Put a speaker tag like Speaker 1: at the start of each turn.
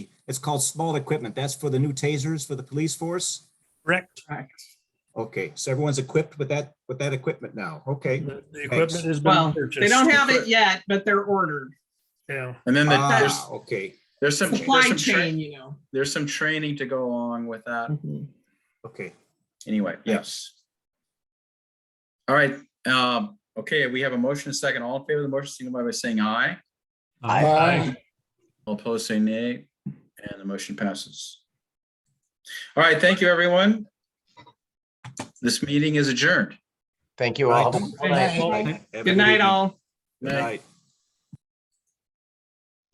Speaker 1: It's called small equipment. That's for the new tasers for the police force?
Speaker 2: Correct.
Speaker 1: Okay, so everyone's equipped with that, with that equipment now. Okay.
Speaker 2: The the equipment has been
Speaker 3: Well,
Speaker 2: purchased.
Speaker 3: they don't have it yet, but they're ordered.
Speaker 2: Yeah.
Speaker 4: And then the-
Speaker 1: Ah,
Speaker 4: there's,
Speaker 1: Okay,
Speaker 4: there's some, there's
Speaker 3: Supply
Speaker 4: some, tra-
Speaker 3: chain, you know.
Speaker 4: there's some training to go along with that.
Speaker 1: okay.
Speaker 4: Anyway, yes. All right, um, okay, we have a motion and a second. All in favor of the motion, signify by saying aye.
Speaker 2: Aye.
Speaker 4: All opposed, say nay, and the motion passes. All right, thank you, everyone. This meeting is adjourned.
Speaker 5: Thank you all.
Speaker 2: Well,
Speaker 1: Have a
Speaker 3: Good night,
Speaker 1: evening.
Speaker 3: all.
Speaker 1: Good night.